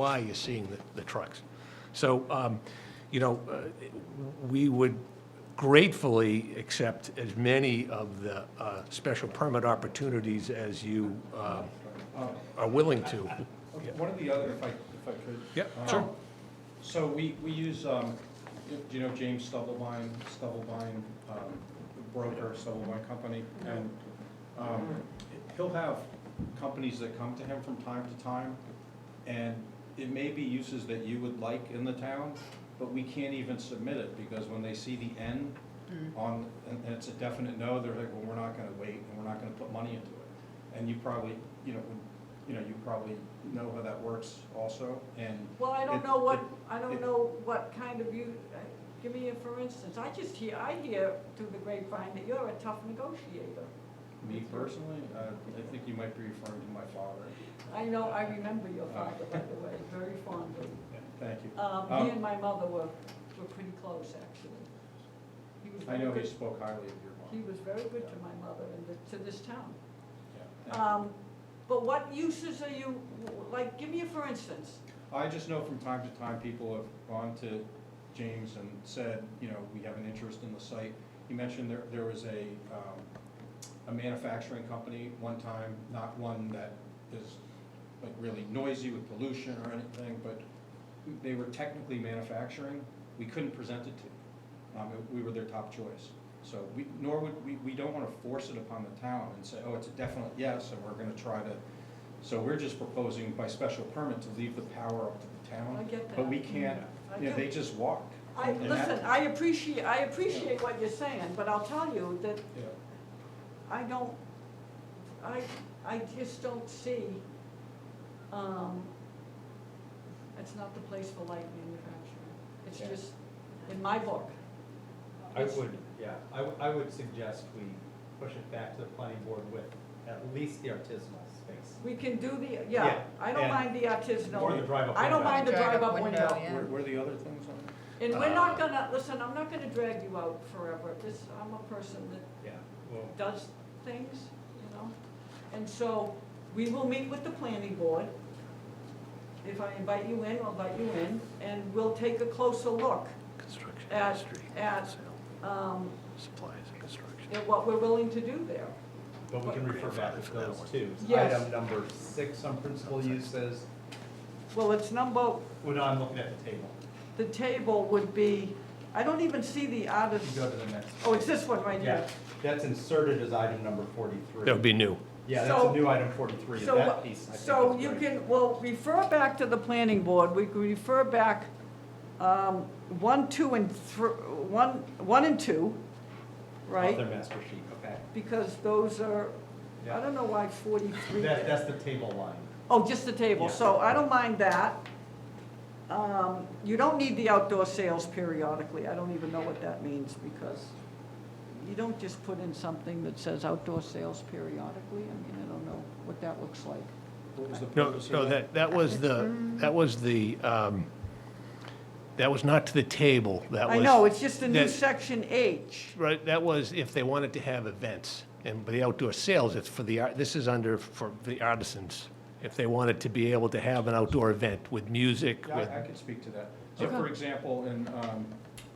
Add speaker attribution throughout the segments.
Speaker 1: why you're seeing the, the trucks. So, um, you know, uh, we would gratefully accept as many of the, uh, special permit opportunities as you, uh, are willing to.
Speaker 2: Okay, One of the other, if I, if I could.
Speaker 1: Yeah,
Speaker 2: Um,
Speaker 1: sure.
Speaker 2: So we, we use, um, do you know James Stubblebine, Stubblebine, um, broker, Stubblebine Company? And, um, he'll have companies that come to him from time to time, and it may be uses that you would like in the town, but we can't even submit it, because when they see the N on, and and it's a definite no, they're like, well, we're not gonna wait, and we're not gonna put money into it. And you probably, you know, would- you know, you probably know how that works also, and.
Speaker 3: Well, I
Speaker 2: it-
Speaker 3: don't know what,
Speaker 2: it-
Speaker 3: I
Speaker 2: it-
Speaker 3: don't know what kind of you, uh, give me, a for instance, I just hear, I hear through the grapevine that you're a tough negotiator.
Speaker 2: Me personally, uh, I think you might be referring to my father.
Speaker 3: I know, I remember your
Speaker 2: Oh.
Speaker 3: father, by the way, very fondly.
Speaker 2: Thank you.
Speaker 3: Um,
Speaker 2: Um,
Speaker 3: He and my mother were, were pretty close, actually. He was
Speaker 2: I
Speaker 3: very
Speaker 2: know he
Speaker 3: good-
Speaker 2: spoke highly of your
Speaker 3: He
Speaker 2: mom.
Speaker 3: was very good to my mother and the- to this town.
Speaker 2: Yeah, thank you.
Speaker 3: Um, But what uses are you, like, give me a for instance.
Speaker 2: I just know from time to time, people have gone to James and said, you know, we have an interest in the site. You mentioned there, there was a, um, a manufacturing company one time, not one that is like really noisy with pollution or anything, but they were technically manufacturing, we couldn't present it to them. Um, we were their top choice. So we, nor would, we, we don't wanna force it upon the town and say, oh, it's a definite yes, and we're gonna try to. So we're just proposing by special permit to leave the power up to the town.
Speaker 3: I get
Speaker 2: But
Speaker 3: that.
Speaker 2: we can't,
Speaker 3: I
Speaker 2: you know,
Speaker 3: do.
Speaker 2: they just walk.
Speaker 3: I,
Speaker 2: And that-
Speaker 3: listen, I appreciate, I appreciate what you're saying, but I'll tell you that
Speaker 2: Yeah.
Speaker 3: I don't, I, I just don't see, um, it's not the place for light manufacturing. It's
Speaker 4: Yeah.
Speaker 3: just, in my book.
Speaker 4: I would, yeah, I, w- I would suggest we push it back to the planning board with at least the artisanal space.
Speaker 3: We can do the, yeah,
Speaker 4: Yeah,
Speaker 3: I don't
Speaker 4: and-
Speaker 3: mind the
Speaker 4: Or the
Speaker 3: artisanal.
Speaker 4: drive-up
Speaker 3: I don't
Speaker 4: window.
Speaker 3: mind the
Speaker 5: Drive-up
Speaker 3: drive-up
Speaker 5: window,
Speaker 3: window.
Speaker 5: yeah.
Speaker 2: Where, where are the other things on?
Speaker 3: And we're not
Speaker 4: Uh,
Speaker 3: gonna, listen, I'm not gonna drag you out forever. This, I'm a person that
Speaker 4: Yeah, well,
Speaker 3: does things, you know? And so, we will meet with the planning board. If I invite you in, I'll invite you in, and we'll take a closer look
Speaker 1: Construction
Speaker 3: At-
Speaker 1: industry,
Speaker 3: at-
Speaker 1: sale,
Speaker 3: um,
Speaker 1: supplies and construction.
Speaker 3: at what we're willing to do there.
Speaker 4: but we can refer back to
Speaker 1: Grandfather for that
Speaker 4: those
Speaker 1: one.
Speaker 4: two.
Speaker 3: Yes.
Speaker 4: Item number six on principal uses,
Speaker 3: Well, it's number,
Speaker 4: well, no, I'm looking at the table.
Speaker 3: the table would be, I don't even see the
Speaker 4: You
Speaker 3: artist,
Speaker 4: go to the next.
Speaker 3: oh, it's this one right
Speaker 4: Yeah,
Speaker 3: here.
Speaker 4: that's inserted as item number forty-three.
Speaker 1: That would be new.
Speaker 4: Yeah, that's
Speaker 3: So-
Speaker 4: a new item forty-three,
Speaker 3: So,
Speaker 4: that
Speaker 3: what-
Speaker 4: piece, I think
Speaker 3: so
Speaker 4: is
Speaker 3: you
Speaker 4: great.
Speaker 3: can, well, refer back to the planning board, we can refer back, um, one, two, and thr- one, one and two,
Speaker 4: Author
Speaker 3: right?
Speaker 4: master sheet, okay.
Speaker 3: Because those are, I
Speaker 4: Yeah,
Speaker 3: don't know why forty-three.
Speaker 4: that, that's the table line.
Speaker 3: Oh, just the table,
Speaker 4: Yeah.
Speaker 3: so I don't mind that. Um, You don't need the outdoor sales periodically, I don't even know what that means, because you don't just put in something that says outdoor sales periodically, I mean, I don't know what that looks like.
Speaker 2: What was the
Speaker 1: No,
Speaker 2: purpose of
Speaker 1: no, that, that was the, that was the, um, that was not to the table, that was.
Speaker 3: I know, it's just a new
Speaker 1: that-
Speaker 3: section H.
Speaker 1: Right, that was if they wanted to have events, and by the outdoor sales, it's for the, art. this is under, for the artisans. If they wanted to be able to have an outdoor event with music,
Speaker 2: Yeah,
Speaker 1: with,
Speaker 2: I- I could speak to that. So
Speaker 3: Okay.
Speaker 2: for example, in um,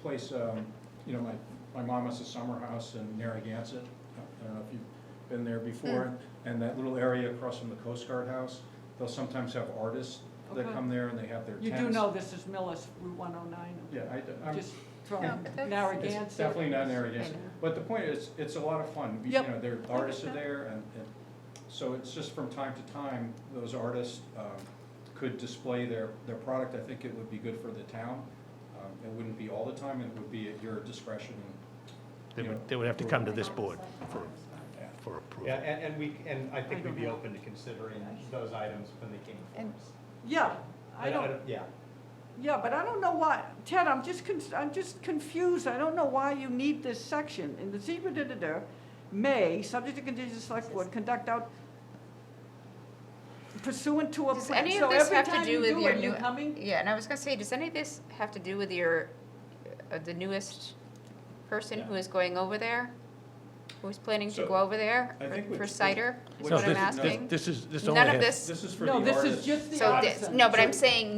Speaker 2: place, um, you know, my, my mom has a summer house in Narragansett. I don't know if you've been there before.
Speaker 3: Hmm.
Speaker 2: And that little area across from the Coast Guard House, they'll sometimes have artists that
Speaker 3: Okay.
Speaker 2: come there and they have their tents.
Speaker 3: You do know this is Millis, Route one oh nine,
Speaker 2: Um, Yeah, I, am
Speaker 3: just from
Speaker 5: No, but that's-
Speaker 3: Narragansett.
Speaker 2: it's definitely not Narragansett.
Speaker 5: I know.
Speaker 2: But the point is, it's a lot of fun. You
Speaker 3: Yep.
Speaker 2: know, there are artists are
Speaker 3: that.
Speaker 2: there and, and, so it's just from time to time, those artists, um, could display their, their product. I think it would be good for the town. Um, It wouldn't be all the time and it would be at your discretion.
Speaker 1: they would, they would have to come to this board for,
Speaker 2: Yeah.
Speaker 1: for approval.
Speaker 4: Yeah, and, and we, and I think
Speaker 3: I
Speaker 4: we'd be
Speaker 3: don't know.
Speaker 4: open to considering those items when they came
Speaker 5: And-
Speaker 4: forward.
Speaker 3: Yeah, I don't.
Speaker 4: Yeah,
Speaker 3: Yeah, but I don't know why, Ted, I'm just, con- I'm just confused, I don't know why you need this section. In the zebra da-da-da, may, subject to conditions of select board, conduct out pursuant to a
Speaker 5: Does
Speaker 3: plan.
Speaker 5: any
Speaker 3: So
Speaker 5: of this
Speaker 3: every
Speaker 5: have to
Speaker 3: time
Speaker 5: do
Speaker 3: you
Speaker 5: with your
Speaker 3: it, you
Speaker 5: new-
Speaker 3: coming?
Speaker 5: Yeah, and I was gonna say, does any of this have to do with your, uh, the newest person who is going over there? Who's planning to
Speaker 2: So,
Speaker 5: go over there
Speaker 2: I think
Speaker 5: for- for
Speaker 2: what's-
Speaker 5: cider, is
Speaker 2: what's
Speaker 5: what I'm
Speaker 1: No, this- this-
Speaker 5: asking?
Speaker 1: This is, this only
Speaker 5: None of
Speaker 1: has-
Speaker 5: this,
Speaker 2: This is for the
Speaker 3: No,
Speaker 2: artists.
Speaker 3: this is just the
Speaker 5: so this,
Speaker 3: artisan.
Speaker 5: no, but I'm
Speaker 3: So-
Speaker 5: saying